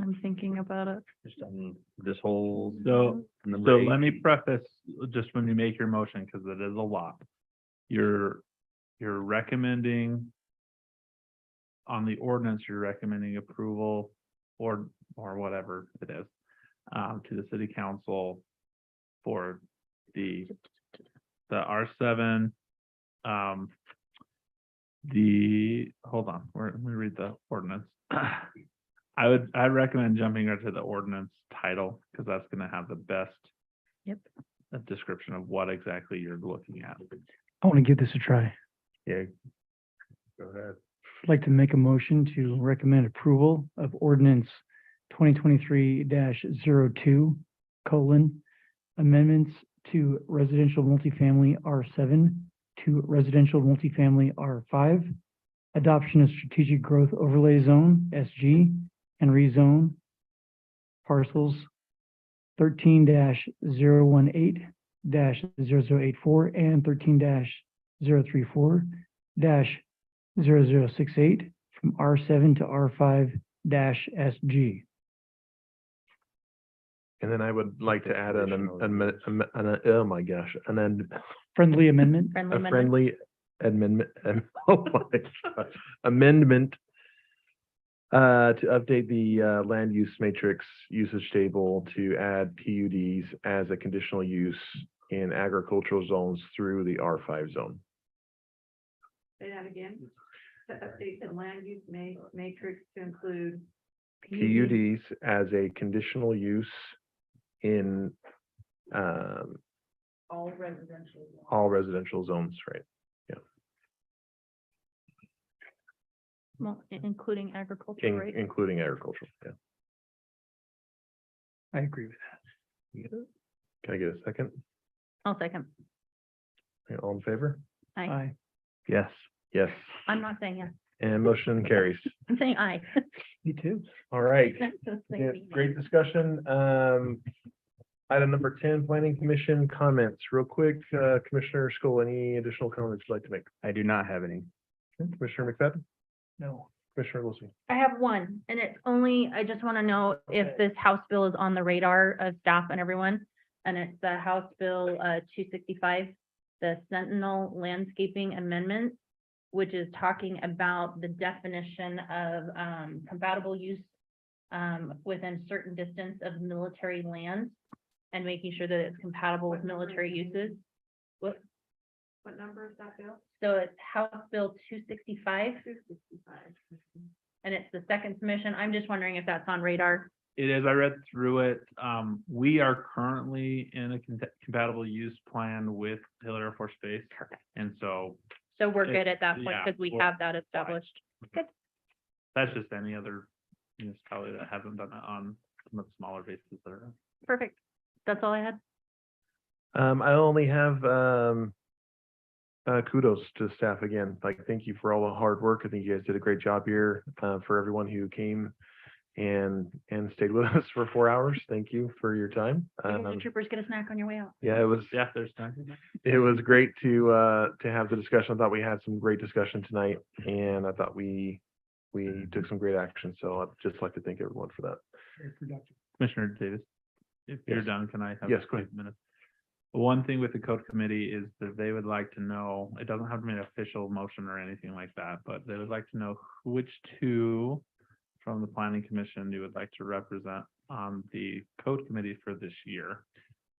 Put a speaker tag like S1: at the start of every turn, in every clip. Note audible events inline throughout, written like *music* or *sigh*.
S1: I'm thinking about it.
S2: Just on this whole.
S3: So, so
S2: number
S3: let me
S2: eight.
S3: preface, just when you make your motion, because it is a lot. You're, you're recommending on the ordinance, you're recommending approval or, or whatever it is, um, to the city council for the, the R seven, um, the, hold on, where, let me read the ordinance. *clears throat* I would, I recommend jumping right to the ordinance title, because that's gonna have the best.
S1: Yep.
S3: uh, Description of what exactly you're looking at.
S4: I want to give this a try. I'd
S2: Yeah. Go ahead.
S4: like to make a motion to recommend approval of ordinance twenty twenty-three 2 colon amendments to residential multifamily R seven to residential multifamily R five, adoption of strategic growth overlay zone SG and rezone parcels thirteen 18 84 and thirteen 34 dash zero zero six eight from R seven to R five dash SG.
S5: And then I would like to add an, am-
S2: Additional
S5: amend- am- an, uh, oh my gosh, an, end-
S4: Friendly amendment.
S1: Friendly
S5: a
S1: amendment.
S5: friendly amendment, am- *laughs* oh my gosh, amendment uh, to update the, uh, land use matrix usage table to add PUDs as a conditional use in agricultural zones through the R five zone.
S6: Say that again. To update the land use ma- matrix to include
S1: Mm.
S5: PUDs as a conditional use in, um,
S6: all residential.
S5: all residential zones, right?
S1: Well, i- including agriculture,
S5: In-
S1: right?
S5: including agricultural, yeah.
S4: I agree with that.
S5: Can I get a second?
S1: I'll second.
S5: Yeah, All in favor?
S1: Aye.
S4: Aye.
S5: Yes. Yes,
S1: I'm not saying yes.
S5: and motion carries.
S1: I'm saying *laughs* aye.
S4: Me too.
S5: All right,
S1: Saying
S5: Yeah,
S1: we-
S5: great discussion. Um, item number ten, planning commission comments, real quick, uh, Commissioner Scholl, any additional comments you'd like to make?
S2: I do not have any.
S5: Commissioner McFadden,
S4: No.
S5: Commissioner Wilson,
S1: I have one, and it's only, I just want to know if this House bill is on the radar of staff and everyone. And it's the House Bill uh two sixty-five, the Sentinel Landscaping Amendment, which is talking about the definition of um compatible use um within certain distance of military land and making sure that it's compatible with
S6: What number is
S1: military
S6: that?
S1: uses.
S6: What number is that bill?
S1: So it's House Bill two sixty-five,
S6: Two sixty-five.
S1: and it's the second submission. I'm just wondering if that's on radar.
S3: It is, I read through it. Um, we are currently in a con- compatible use plan with Hiller Air Force Base.
S1: Perfect.
S3: And so
S1: So we're
S3: It-
S1: good at that point
S3: yeah,
S1: because we
S3: we're
S1: have that established.
S3: that's just any other municipality that hasn't done it on some of the smaller bases that are.
S1: Perfect. That's all I had.
S5: Um, I only have, um, uh, kudos to staff again. Like, thank you for all the hard work. I think you guys did a great job here, uh, for everyone who came and, and stayed with *laughs* us for four hours. Thank you for your time.
S1: You guys are
S5: Um,
S1: Troopers get a snack on your way out.
S5: yeah, it was,
S3: Yeah, there's time.
S5: it was great to, uh, to have the discussion. I thought we had some great discussion tonight and I thought we, we took some great action. So I'd just like to thank everyone for that.
S3: Commissioner Davis, if you're
S5: Yes.
S3: done, can I have?
S5: Yes, go
S3: five
S5: ahead.
S3: minutes? One thing with the code committee is that they would like to know, it doesn't have to be an official motion or anything like that, but they would like to know which two from the planning commission you would like to represent on the code committee for this year.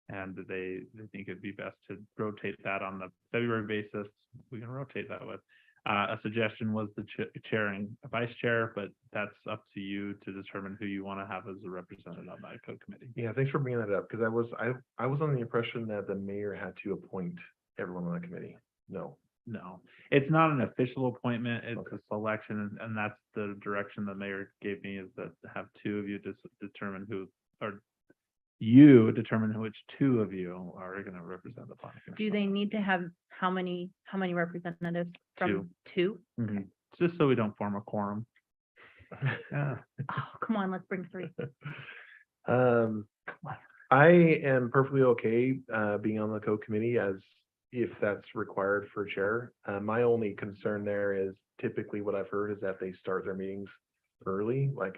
S3: And they, they think it'd be best to rotate that on the February basis. We can rotate that with. Uh, a suggestion was the cha- chair and vice chair, but that's up to you to determine who you want to have as a representative on that code committee.
S5: Yeah, thanks for bringing that up, because I was, I, I was on the impression that the mayor had to appoint everyone on the committee. No.
S3: No, it's not an official appointment. It's
S5: Okay.
S3: a selection and- and that's the direction the mayor gave me is that to have two of you just determine who, or you determine who which two of you are going to represent the planning.
S1: Do they need to have how many, how many representatives from two?
S3: they? Just so we don't form a quorum.
S1: Oh, come on, let's bring three.
S5: Um,
S1: on.
S5: I am perfectly okay, uh, being on the co-committee as if that's required for chair. Uh, my only concern there is typically what I've heard is that they start their meetings early, like